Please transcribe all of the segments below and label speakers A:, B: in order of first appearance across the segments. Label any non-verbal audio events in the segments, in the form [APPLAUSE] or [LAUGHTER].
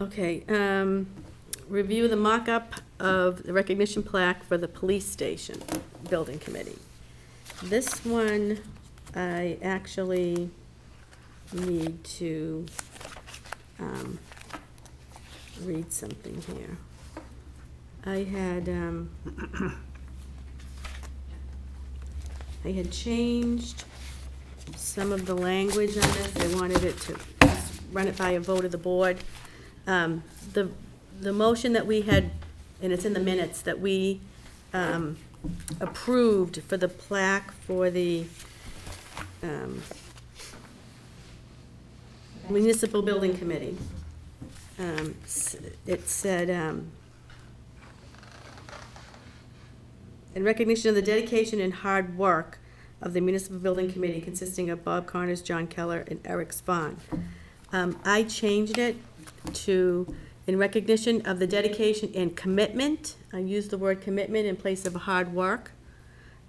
A: Okay, um, review the mock-up of the recognition plaque for the police station building committee. This one, I actually need to, um, read something here. I had, um, I had changed some of the language on this, I wanted it to just run it by a vote of the board. Um, The, the motion that we had, and it's in the minutes, that we um, approved for the plaque for the um, municipal building committee. Um, s- It said, um, In recognition of the dedication and hard work of the Municipal Building Committee consisting of Bob Connors, John Keller, and Eric Spahn. Um, I changed it to, in recognition of the dedication and commitment, I used the word commitment in place of hard work,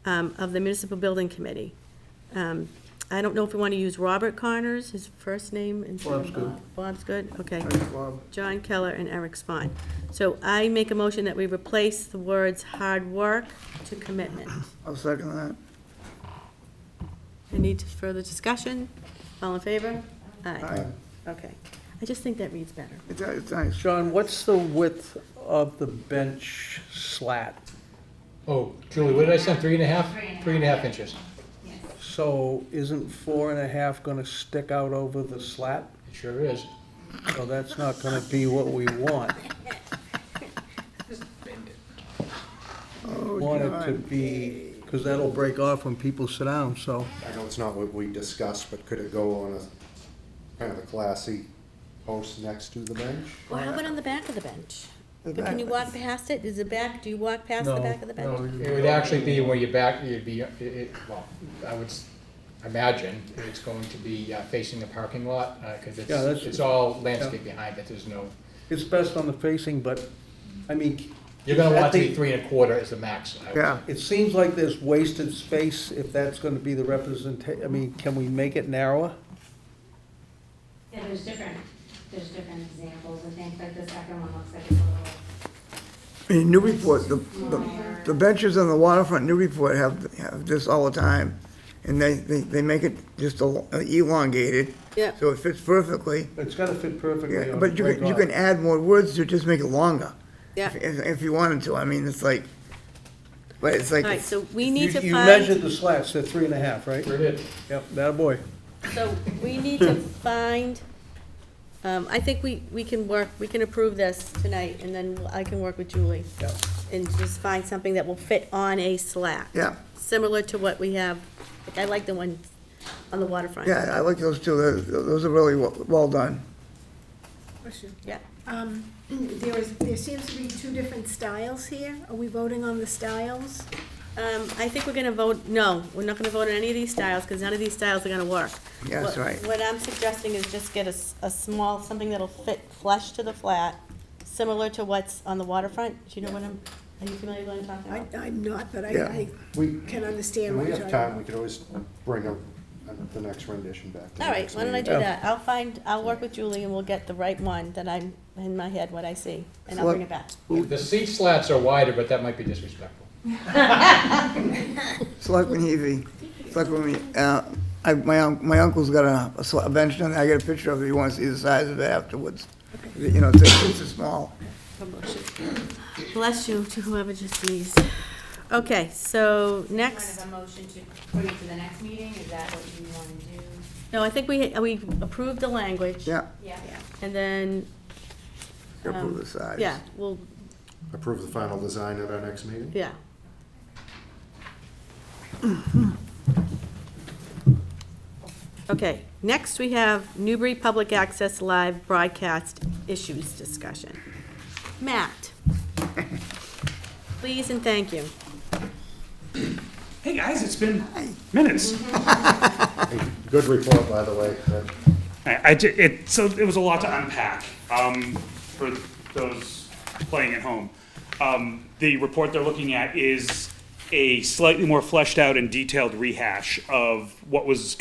A: um, of the Municipal Building Committee. Um, I don't know if we want to use Robert Connors, his first name instead of
B: Bob's good.
A: Bob. Bob's good, okay.
B: Thanks, Bob.
A: John Keller and Eric Spahn. So I make a motion that we replace the words hard work to commitment.
B: I'll second that.
A: Any further discussion? All in favor? Aye.
B: Aye.
A: Okay. I just think that reads better.
B: It's, it's nice.
C: John, what's the width of the bench slat?
D: Oh, Julie, what did I send, three and a half? Three and a half inches.
C: So isn't four and a half gonna stick out over the slat?
D: It sure is.
C: So that's not gonna be what we want.
B: Oh,
C: Want it to
B: God.
C: be, because that'll break off when people sit down, so.
E: I know it's not what we discussed, but could it go on a, kind of a classy post next to the bench?
A: Well, how about on the back of the bench?
B: The
A: But Can
B: back-
A: you walk past it? Is the back, do you walk past the
C: No,
A: back of the
B: No,
A: bench?
B: you-
D: It would actually be where your back, you'd be, it, it, well, I would s- imagine it's going to be uh, facing the parking lot, uh 'cause cause
C: Yeah,
D: it's,
C: that's-
D: it's all landscape behind it, there's no,
C: It's best on the facing, but, I mean.
D: you're gonna
C: I
D: want it to be
C: think
D: three and a quarter is the max. I would say.
B: Yeah,
C: It seems like there's wasted space if that's gonna be the representation. I mean, can we make it narrower?
F: Yeah, there's different, there's different examples, I think, like the second one looks like it's a little,
B: in Newburyport, the, the- the benches on the waterfront, in Newburyport have, have this all the time. And they, they, they make it just el- elongated,
A: Yeah.
B: so it fits perfectly.
C: It's gotta fit perfectly
B: Yeah,
C: on the
B: But you can, you
C: break
B: can add more words to just make it longer.
A: Yeah.
B: If, if you wanted to, I mean, it's like, but it's like.
A: All right, so we
C: off.
A: need to
C: You- You
A: find,
C: measured the slats, they're three and a half, right?
D: Sure did.
C: Yep, that boy.
A: so we need to find, um, I think we, we can work, we can approve this tonight, and then I can work with Julie.
C: Yep.
A: And just find something that will fit on a slat.
B: Yeah,
A: Similar to what we have, like, I like the one on the waterfront.
B: yeah, I like those two, those, those are really well, well done.
G: Question.
A: Yeah.
G: Um, [CLEARS THROAT] There is, there seems to be two different styles here. Are we voting on the styles?
A: Um, I think we're gonna vote, no, we're not gonna vote on any of these styles, because none of these styles are gonna work.
B: Yeah, that's
A: What-
B: right.
A: What I'm suggesting is just get a, s- a small, something that'll fit flush to the flat, similar to what's on the waterfront, do you know what I'm, are you familiar with what I'm talking
G: I,
A: about?
G: I'm not, but
B: Yeah.
G: I,
E: We,
G: I can understand
E: when
G: what
E: we
G: you're
E: have
G: talking
E: time,
G: about.
E: we could always bring up the next rendition back. to the
A: All right,
E: next
A: why don't I do
E: meeting.
A: that, I'll find, I'll work with Julie and we'll get the right one that I'm, in my head, what I see, and I'll bring it back.
D: The seat slats are wider, but that might be disrespectful.
B: Selectman Heavy, Selectman, uh, I, my, un- my uncle's got a, a sl- a bench down there, I got a picture of it, you wanna see the size of it afterwards. You know, it's, a- it's a small,
A: Bless you to whoever just sneezed. Okay, so next.
F: kind of a motion to put it to the next meeting, is that what you want to do?
A: No, I think we, we approved the language.
B: yeah,
F: Yeah.
A: And then,
B: approve
A: Um,
B: the size.
A: yeah, well,
E: Approve the final design at our next meeting?
A: yeah. Okay, next we have Newbury Public Access Live Broadcast Issues Discussion. Matt, please and thank you.
H: Hey guys, it's been minutes.
E: Hey, Good report, by the way. That-
H: I, I ju- it, so it was a lot to unpack um, for those playing at home. Um, the report they're looking at is a slightly more fleshed out and detailed rehash of what was